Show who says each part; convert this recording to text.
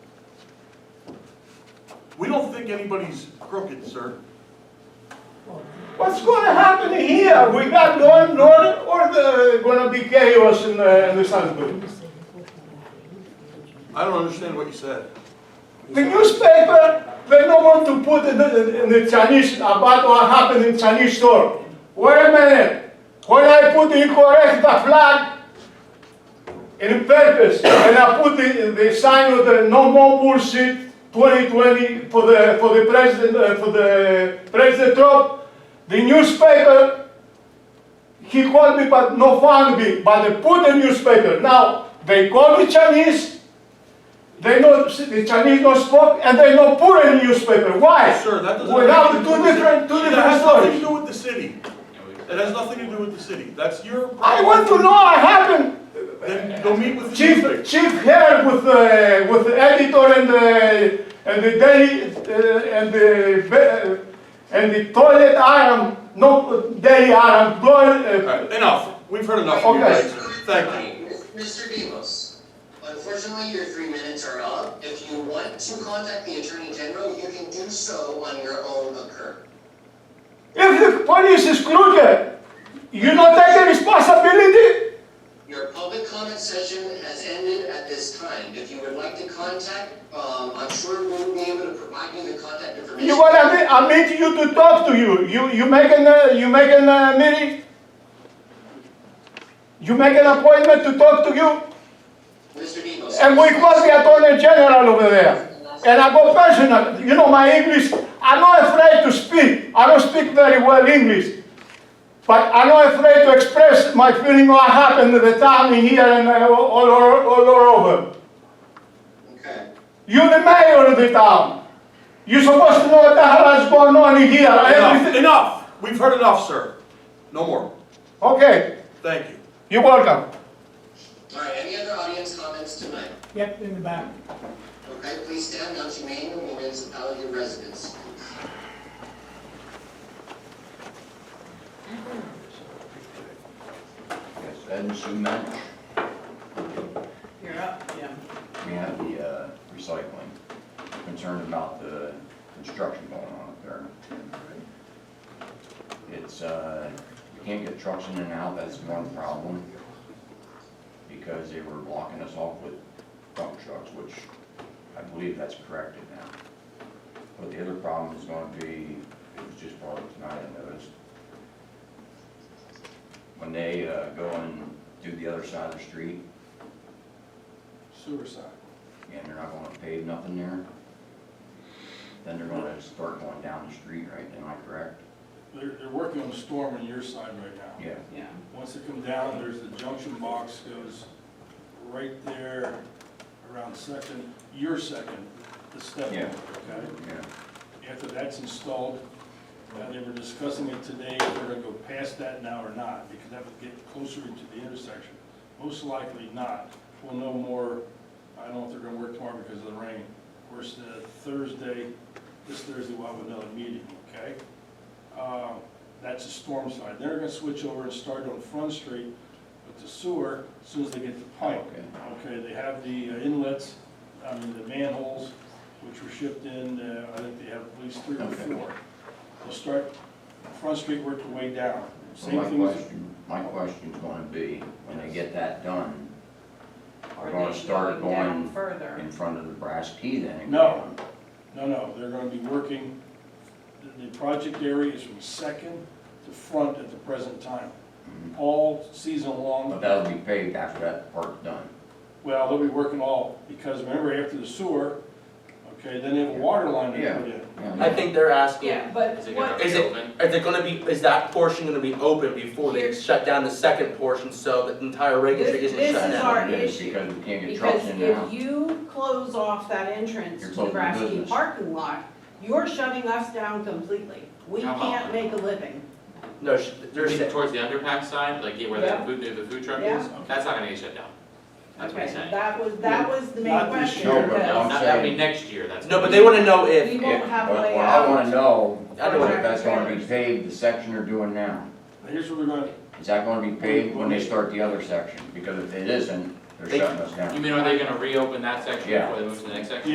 Speaker 1: We don't think anybody's crooked, sir.
Speaker 2: What's going to happen here? We got no order, or the, going to be chaos in the, in the Salisbury?
Speaker 1: I don't understand what you said.
Speaker 2: The newspaper, they don't want to put in the, in the Chinese about what happened in Chinese store. Wait a minute. When I put the correct the flag in purpose, and I put the, the sign of the no more bullshit 2020 for the for the president uh, for the president Trump, the newspaper he called me but no found me, but they put the newspaper. Now they call the Chinese. They know the Chinese don't spoke and they don't put any newspaper. Why?
Speaker 1: Sir, that doesn't.
Speaker 2: We
Speaker 1: have
Speaker 2: have
Speaker 1: anything to
Speaker 2: two
Speaker 1: do with-
Speaker 2: different, two
Speaker 1: That
Speaker 2: different
Speaker 1: has nothing to
Speaker 2: stories.
Speaker 1: do with the city. It has nothing to do with the city. That's your.
Speaker 2: I want to know what happened.
Speaker 1: Then go meet with the
Speaker 2: Chief,
Speaker 1: newspaper.
Speaker 2: Chief here with, uh, with the editor and the, and the daily, uh, and the, be- and the toilet iron, no, daily iron, blowing,
Speaker 1: All
Speaker 2: uh,
Speaker 1: right, Enough. We've heard enough of you
Speaker 2: Okay.
Speaker 1: guys. Thank you.
Speaker 3: Mr. Demos, unfortunately, your three minutes are up. If you want to contact the Attorney General, you can do so on your own occur.
Speaker 2: if the police is crooked, you not take the responsibility?
Speaker 3: Your public comment session has ended at this time. If you would like to contact, um, I'm sure we'll be able to provide you the contact information.
Speaker 2: You want, I meet, I meet you to talk to you, you, you make an, uh, you make an, uh, meeting? You make an appointment to talk to you?
Speaker 3: Mr. Demos.
Speaker 2: And we call the attorney general over there. And I go personal, you know, my English, I'm not afraid to speak. I don't speak very well English. But I'm not afraid to express my feeling what happened at the time in here and uh, all, all, all over.
Speaker 3: Okay.
Speaker 2: You're the mayor of the town. You're supposed to know what the hell is going on in here.
Speaker 1: Enough,
Speaker 2: Everything.
Speaker 1: enough. We've heard enough, sir. No more.
Speaker 2: Okay,
Speaker 1: Thank you.
Speaker 2: you're welcome.
Speaker 3: All right, any other audience comments tonight?
Speaker 4: Yep, in the back.
Speaker 3: Okay, please stand, announce your name and municipality of residence.
Speaker 5: Yes, Ben Schumann,
Speaker 4: You're up, Jim.
Speaker 5: we have the uh, recycling, concerned about the construction going on up there. It's, uh, you can't get trucks in and out, that's one problem, because they were blocking us off with dump trucks, which I believe that's corrected now. But the other problem is gonna be, it was just brought up tonight, I noticed, when they uh, go and do the other side of the street, and they're not gonna pave nothing there, then they're gonna start going down the street, right, am I correct?
Speaker 6: They're, they're working on the storm on your side right now.
Speaker 5: Yeah.
Speaker 4: Yeah.
Speaker 6: Once it comes down, there's the junction box goes right there around second, your second, the step.
Speaker 5: Yeah.
Speaker 6: Okay?
Speaker 5: Yeah,
Speaker 6: After that's installed, uh, they were discussing it today, if they're gonna go past that now or not, because that would get closer into the intersection. Most likely not. We'll know more, I don't know if they're gonna work tomorrow because of the rain. Of course, the Thursday, this Thursday, we'll have another meeting, okay? Uh, That's the storm side. They're gonna switch over and start on Front Street with the sewer as soon as they get the pipe. Okay, they have the inlets, I mean, the manholes, which were shipped in, uh, I think they have at least three or
Speaker 5: Okay.
Speaker 6: four. They'll start, Front Street work their way down.
Speaker 5: so
Speaker 6: Same
Speaker 5: my
Speaker 6: thing with
Speaker 5: question, my question's gonna be, when they get that done,
Speaker 4: Or
Speaker 5: We're gonna
Speaker 4: they
Speaker 5: start
Speaker 4: go down
Speaker 5: going
Speaker 4: Further.
Speaker 5: in front of the brass key then? and
Speaker 6: No. No, no, they're gonna be working, the, the project area is from second to front at the present time,
Speaker 5: Mhm.
Speaker 6: all season
Speaker 5: But
Speaker 6: long.
Speaker 5: that'll be paved after that part's done.
Speaker 6: Well, they'll be working all, because remember, after the sewer, okay, then they have a water line to
Speaker 5: Yeah.
Speaker 6: put in.
Speaker 5: Yeah,
Speaker 7: I think they're asking,
Speaker 4: Yeah, but what,
Speaker 7: is it, is it gonna be, is that portion gonna be open before they
Speaker 4: Here's-
Speaker 7: shut down the second portion, so the entire Reagan Street
Speaker 4: This-
Speaker 7: isn't
Speaker 4: this
Speaker 7: shut
Speaker 4: is
Speaker 7: down?
Speaker 4: our
Speaker 5: It is,
Speaker 4: issue,
Speaker 5: Because we can't get trucks
Speaker 4: because
Speaker 5: in and
Speaker 4: if
Speaker 5: out.
Speaker 4: you close off that entrance
Speaker 5: You're
Speaker 4: to the
Speaker 5: closing the
Speaker 4: Brasky
Speaker 5: business.
Speaker 4: parking lot, you're shutting us down completely. We
Speaker 8: How about-
Speaker 4: can't make a living.
Speaker 7: No, sh- they're,
Speaker 8: Maybe
Speaker 7: sa-
Speaker 8: towards the underpack side, like yeah, where
Speaker 4: Yeah.
Speaker 8: the food, the food truck
Speaker 4: Yeah.
Speaker 8: is, that's not gonna get shut down. That's what he's
Speaker 4: Okay,
Speaker 8: saying.
Speaker 4: that was, that was the main
Speaker 6: Not this
Speaker 4: question,
Speaker 5: year, but
Speaker 8: No,
Speaker 4: because
Speaker 8: not, that'll be next year, that's.
Speaker 7: no, but they wanna know
Speaker 4: we
Speaker 7: if,
Speaker 4: won't have
Speaker 5: But
Speaker 4: way
Speaker 5: what I wanna
Speaker 4: out.
Speaker 5: know,
Speaker 7: I don't
Speaker 5: is
Speaker 7: know.
Speaker 5: if that's gonna be paved, the section they're doing now.
Speaker 6: Now, Here's what we're gonna,
Speaker 5: Is that gonna be paved when they start the other section? Because if it isn't, they're shutting us down.
Speaker 8: You mean, are they gonna reopen that section
Speaker 5: Yeah.
Speaker 8: before they move to the next section?